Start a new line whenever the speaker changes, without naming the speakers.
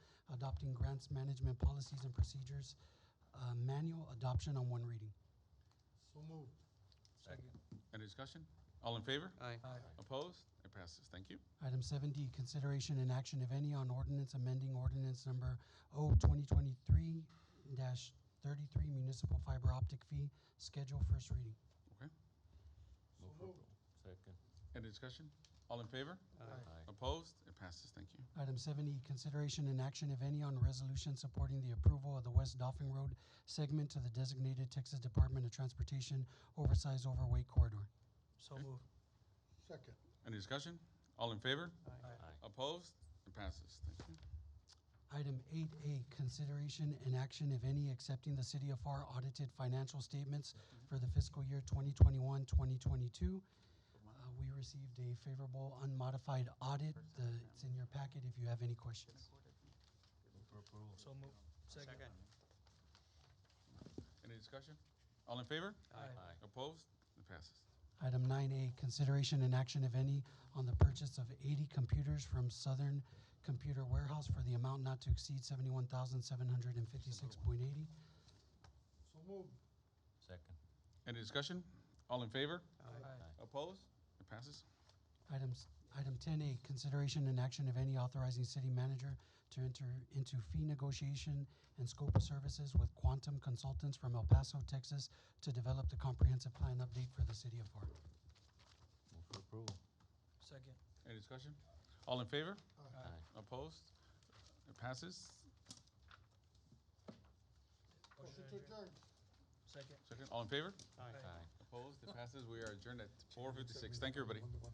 adopting grants management policies and procedures, uh, manual adoption on one reading.
So moved.
Second.
Any discussion? All in favor?
Aye.
Opposed? It passes. Thank you.
Item seven D, consideration and action, if any, on ordinance amending ordinance number O twenty twenty-three dash thirty-three municipal fiber optic fee schedule, first reading.
So moved.
Second.
Any discussion? All in favor?
Aye.
Opposed? It passes. Thank you.
Item seven E, consideration and action, if any, on resolution supporting the approval of the West Dolphin Road segment to the designated Texas Department of Transportation oversized overweight corridor.
So
Okay.
moved.
Second.
Any discussion? All in favor?
Aye.
Opposed? It passes. Thank you.
Item eight A, consideration and action, if any, accepting the City of FAR audited financial statements for the fiscal year 2021-2022. Uh, we received a favorable unmodified audit. The, it's in your packet if you have any questions.
So moved. Second.
Any discussion? All in favor?
Aye.
Opposed? It passes.
Item nine A, consideration and action, if any, on the purchase of eighty computers from Southern Computer Warehouse for the amount not to exceed seventy-one thousand seven hundred and fifty-six point eighty.
So moved.
Second.
Any discussion? All in favor?
Aye.
Opposed? It passes.
Items, item ten A, consideration and action, if any, authorizing city manager to enter into fee negotiation and scope of services with Quantum Consultants from El Paso, Texas, to develop the comprehensive plan update for the city of FAR.
Move for approval.
Second.
Any discussion? All in favor?
Aye.
Opposed? It passes.
Motion to adjourn.
Second.
Second. All in favor?
Aye.
Opposed? It passes. We are adjourned at four fifty-six. Thank you, everybody.